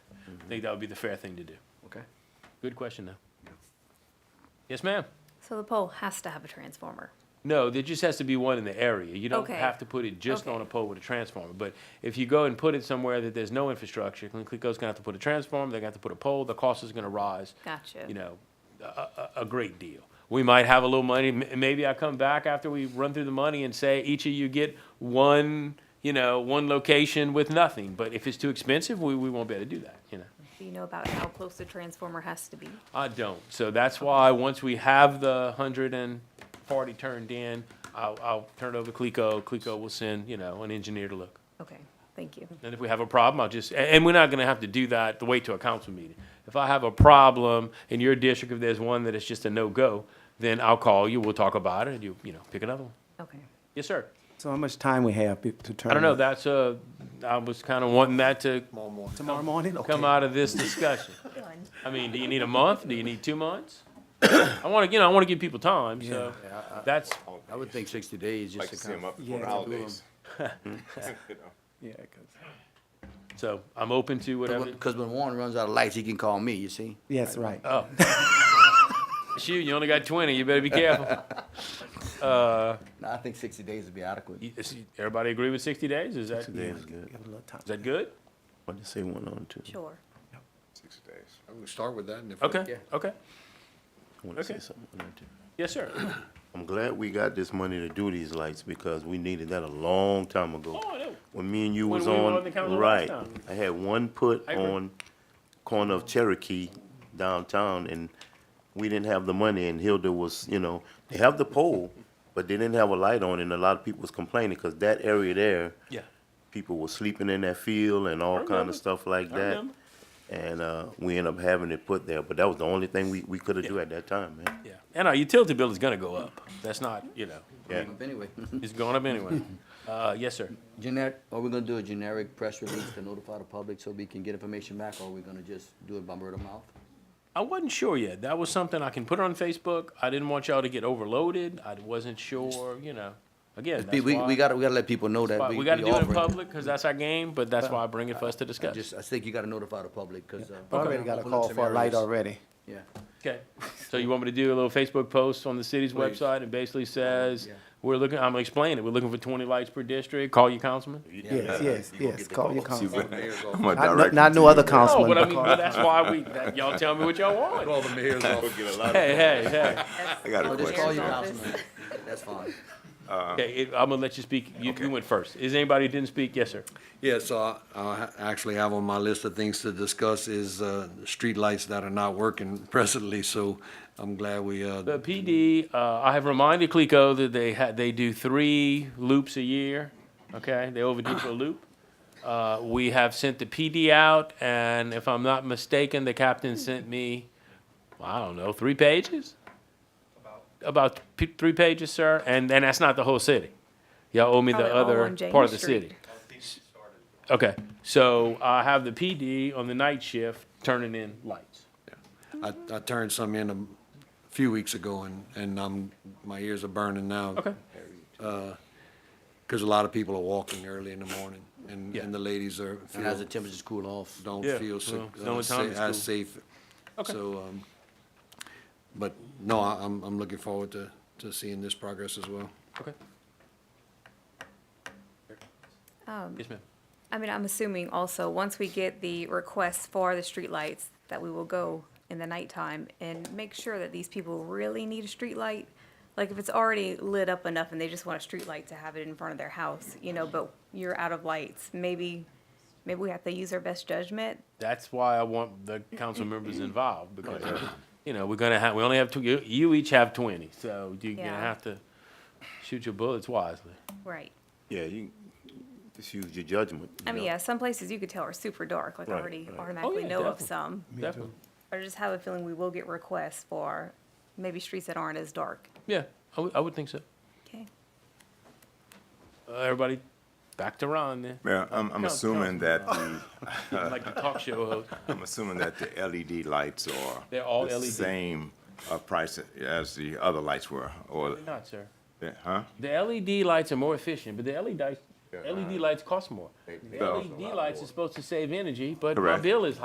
think that would be the fair thing to do. Okay. Good question, though. Yes, ma'am? So the pole has to have a transformer. No, there just has to be one in the area. You don't Okay. have to put it just Okay. on a pole with a transformer. But if you go and put it somewhere that there's no infrastructure, Glencoe's gonna have to put a transformer, they're gonna have to put a pole, the cost is gonna rise. Gotcha. You know, a, a, a great deal. We might have a little money, m- maybe I come back after we run through the money and say, each of you get one, you know, one location with nothing. But if it's too expensive, we, we won't be able to do that, you know? Do you know about how close the transformer has to be? I don't. So that's why, once we have the hundred and forty turned in, I'll, I'll turn it over to Clico. Clico will send, you know, an engineer to look. Okay, thank you. And if we have a problem, I'll just, a- and we're not gonna have to do that, to wait till a council meeting. If I have a problem in your district, if there's one that is just a no-go, then I'll call you, we'll talk about it, and you, you know, pick another one. Okay. Yes, sir. So how much time we have be- to turn? I don't know, that's a, I was kinda wanting that to Tomorrow morning? Okay. come out of this discussion. I mean, do you need a month? Do you need two months? I wanna, you know, I wanna give people time, so that's, I would think sixty days, Like just to to see them kind of. up before Yeah, the to do holidays. You know. Yeah, 'cause- so I'm open to whatever. Because when Warren runs out of lights, he can call me, you see? yes, right. Oh. Shoot, you only got twenty, you better be careful. No, I think sixty days would be adequate. You- is- Everybody agree with sixty days? Is that, is is good. Give it a little time. that good? What did say went on too? Sure. Sixty days. I'm gonna start with that and if. Okay, okay. I want to say Okay. something on that too. Yes, sir. I'm glad we got this money to do these lights because we needed that a long time ago. Oh, I know. When me and you When was we were on, on the council last right, time. I had one put I agree. on corner of Cherokee downtown and we didn't have the money and Hilda was, you know, they have the pole, but they didn't have a light on and a lot of people was complaining because that area there, Yeah. people were sleeping in that field and all kind remember. of stuff like I that. remember. And, uh, we ended up having it put there, but that was the only thing we, we could have do at that time, man. Yeah. And our utility bill is gonna go up. That's not, you know, Yeah. Anyway, it's going up anyway. Uh, yes, sir. generic, are we gonna do a generic press release to notify the public so we can get information back, or are we gonna just do it by word of mouth? I wasn't sure yet. That was something I can put on Facebook. I didn't want y'all to get overloaded. I wasn't sure, you know. Again, We, that's we, why- we gotta, we gotta let people know that. But we got to do it in offering public because that's our game, but that's why I bring it for us to discuss. Just, I think you gotta notify the public, cause, uh. I Already got a call for a light already. Yeah. Okay. So you want me to do a little Facebook post on the city's Please. website and basically says, Yeah. we're looking, I'm gonna explain it, we're looking for twenty lights per district, call your councilman? Yes, yes, yes, call your See, council. but I'm Not- a Not, direct. not no other No, councilman. Oh, but I but mean, call- but that's why we, that- y'all tell me what y'all want. Call the mayor's office. Hey, hey, hey. I got a I'll Oh, just call question. you Mayor's councilman, that's fine. Okay, it- I'm gonna let you speak, you, you went first. Is anybody who didn't speak? Yes, sir. Yes, I, I actually have on my list of things to discuss is, uh, streetlights that are not working presently, so I'm glad we, uh, The PD, uh, I have reminded Clico that they had, they do three loops a year, okay? They overdue for a loop. Uh, we have sent the PD out, and if I'm not mistaken, the captain sent me, I don't know, three pages? About p- three pages, sir, and, and that's not the whole city. Y'all owe me the Probably Oh, all other on James part of the Street. city. Okay, so I have the PD on the night shift turning in lights. I, I turned some in a few weeks ago and, and I'm, my ears are burning now. Okay. Cause a lot of people are walking early in the morning and, Yeah. and the ladies are, And as the temperatures cool off. don't Yeah, feel sick, well, it's the uh, only time sa- it's as cool. safe. Okay. So, um, but no, I, I'm, I'm looking forward to, to seeing this progress as well. Okay. Yes, ma'am. I mean, I'm assuming also, once we get the requests for the streetlights, that we will go in the nighttime and make sure that these people really need a streetlight. Like, if it's already lit up enough and they just want a streetlight to have it in front of their house, you know, but you're out of lights, maybe, maybe we have to use our best judgment. That's why I want the council members involved, because, you know, we're gonna have, we only have two, you, you each have twenty, so you're gonna Yeah. have to shoot your bullets wisely. Right. Yeah, you just use your judgment. you I mean, know. yeah, some places you could tell are super dark, like I Right, already right. automatically Oh, yeah, know of definitely. some. Definitely, I just have a feeling we will get requests for maybe streets that aren't as dark. yeah, I would, I would think so. Okay. Uh, Everybody, back to Ron then, Mayor, I'm, I'm No, assuming that the, like the talk show host. I'm assuming that the LED lights are. They're all E the LED. Same, uh, price as the other lights were, or, They're Not, sir. yeah, huh? The LED lights are more efficient, but the E LED lights, Yeah. LED lights cost more. The E So- LED lights are supposed to save energy, but my Correct. bill is